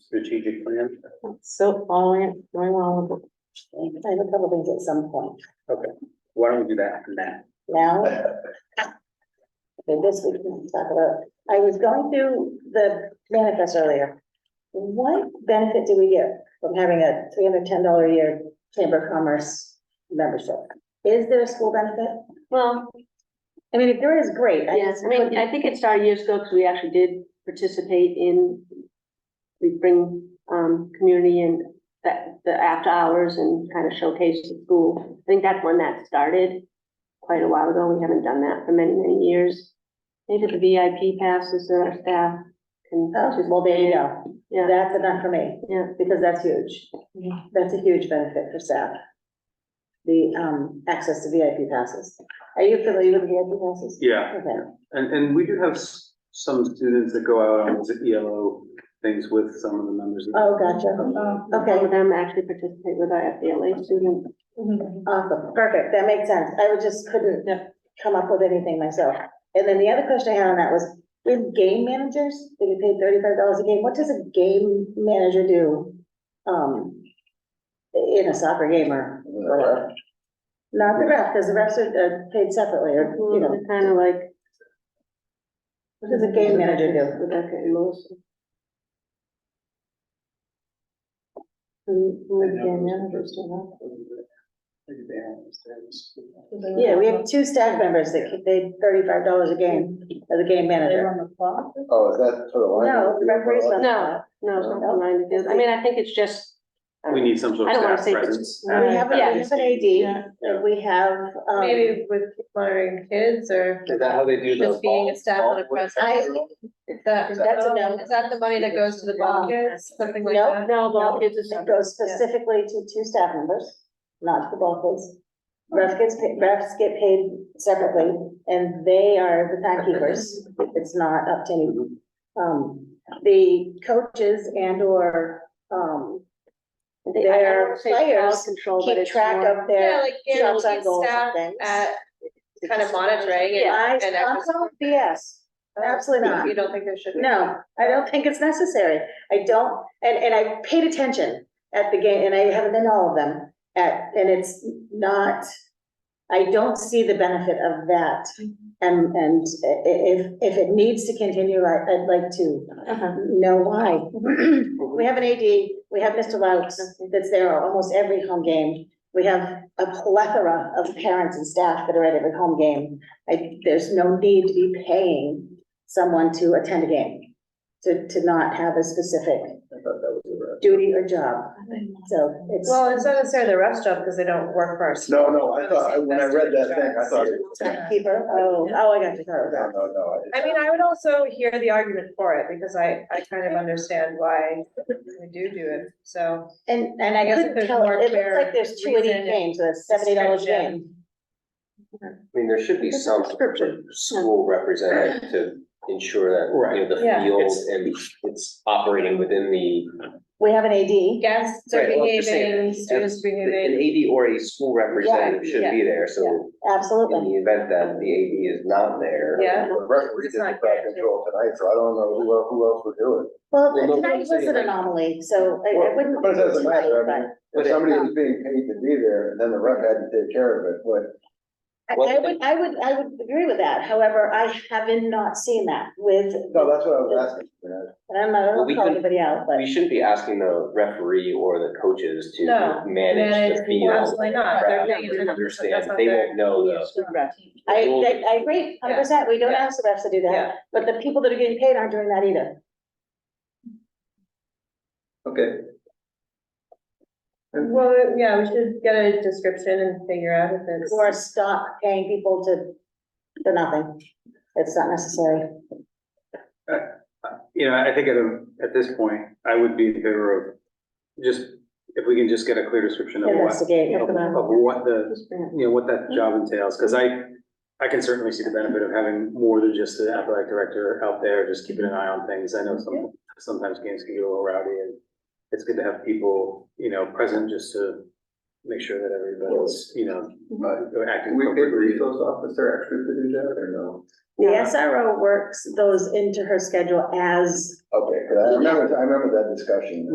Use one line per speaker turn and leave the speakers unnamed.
strategic plan?
Still following it, going along with it. I look over things at some point.
Why don't we do that now?
Now, okay, this we can talk about, I was going through the manifest earlier. What benefit do we get from having a three hundred ten dollar a year Chamber of Commerce membership? Is there a school benefit?
Well,
I mean, if there is, great. I
yes,
just
I mean,
couldn't-
I think it started years ago because we actually did participate in, we bring, um, community and that, the after hours and kind of showcase the school. I think that's when that started quite a while ago. We haven't done that for many, many years. Maybe the VIP passes that our staff can.
Oh, well, there you
participate
go.
in. Yeah,
That's enough for me,
yeah.
because that's huge. That's a huge benefit for staff. The, um, access to VIP passes. Are you familiar with VIP passes?
Yeah,
Okay.
and, and we do have s- some students that go out on those ELO things with some of the members. of-
Oh, gotcha.
Some
Okay,
of them actually participate with our FBLA students.
awesome, perfect, that makes sense. I was just couldn't come up with anything myself. And then the other question I had on that was, we have game managers, they get paid thirty-five dollars a game. What does a game manager do? Um, in a soccer game or whatever? Not the ref, because the refs are, are paid separately, or, you know,
Kind of like.
what does a game manager do?
Rebecca and Melissa. Who, who is game managers do that?
Yeah, we have two staff members that get paid thirty-five dollars a game as a game manager.
Oh, is that for the
No,
library?
it's referees not-
No, no, it's not aligned with this. I mean, I think it's just. I don't
We
know.
need some sort
I
of
don't wanna
staff
say if it's-
presence.
Right.
We have, a- we have an AD, and we have, um.
Maybe with monitoring kids or
Is that how they do the?
just being a staff
ball-
and a
ball-
presence?
I,
Is that, is
That's a no.
that the money that goes to the ball kids, something like
Nope.
that?
No, well, it's a
it
separate.
goes specifically to two staff members, not to the ball kids. Refs gets, pa- refs get paid separately, and they are the timekeepers, it's not up to any, um, the coaches and or, um,
I think- I- I don't wanna say it's crowd
Players
Control, but
keep
it's
track
more.
of
Yeah,
their
like
shots
guaranteed
on goals
staff
and things.
at kind of monitoring and.
I,
and
I'm
efforts.
calling BS, absolutely not.
You don't think there should be?
No, I don't think it's necessary. I don't, and, and I paid attention at the game, and I haven't been to all of them. At, and it's not, I don't see the benefit of that. And, and i- if, if it needs to continue, I, I'd like to know why. We have an AD, we have Mr. Louts that's there almost every home game. We have a plethora of parents and staff that are at every home game. I, there's no need to be paying someone to attend a game, to, to not have a specific
I thought that was the ref.
duty or job. So it's,
Well, it's not necessarily the ref's job because they don't work for us.
No, no, I thought, I- when I read that thing, I thought. it was ten.
keeper, oh, oh, I got you, sorry
No,
about
no, no.
I mean, I would also hear the argument for it because I, I kind of understand why we do do it, so.
that. And, and I
I guess if
couldn't
there's
tell,
more
it looks
clear
like there's two of these
reason,
games, so that's seventy dollars a
restriction.
game.
I mean, there should be
It's a
some
prescription.
school representative to ensure that, you know, the
Yeah.
field
It's-
and it's operating within the.
We have an AD,
Guests are
Right, well, I'm just saying,
behaving, students
An
behaving.
AD or a school representative should be there, so in
absolutely.
the event that the AD is not there.
Yeah.
The referee
It's
did
not
the crowd control tonight, so I don't know who else, who else would do it.
Well,
Well, no,
tonight was
I'm saying
an
like-
anomaly, so I, I wouldn't.
But it doesn't matter, I mean,
But
if
it-
somebody was being paid to be there, and then the ref had to take care of it, what,
I, I would, I would, I would agree with that, however, I haven't not seen that with,
no, that's what I was asking. you know.
and I'm not, I
Well,
don't
we
call
could-
anybody out, but.
We shouldn't be asking the referee or the coaches
No,
to manage the
managed,
field.
Absolutely not. They're-
crowd.
they're- they're-
They
that's
Understand,
not
they
their-
won't know the.
I,
Well,
I- I agree, hundred percent, we don't
Yeah.
ask the refs to do
Yeah.
that, but the people that are getting paid aren't doing that either.
Okay,
Well, yeah, we should get a description and figure out if it's.
Or stop paying people to, for nothing, it's not necessary.
You know, I think at, a- at this point, I would be in favor of just, if we can just get a clear description of what,
Investigate,
of of what the, you know, what that job entails, because I, I can certainly see the benefit of having more than just the athletic director out there, just keeping an eye on things. I know some, sometimes games can get a little rowdy, and it's good to have people, you know, present just to make sure that everybody's, you know, uh,
but
acting
we paid the
appropriately.
resource officer actually to do that, or no?
the SRO works those into her schedule as
Okay, 'cause I remember, I remember that discussion.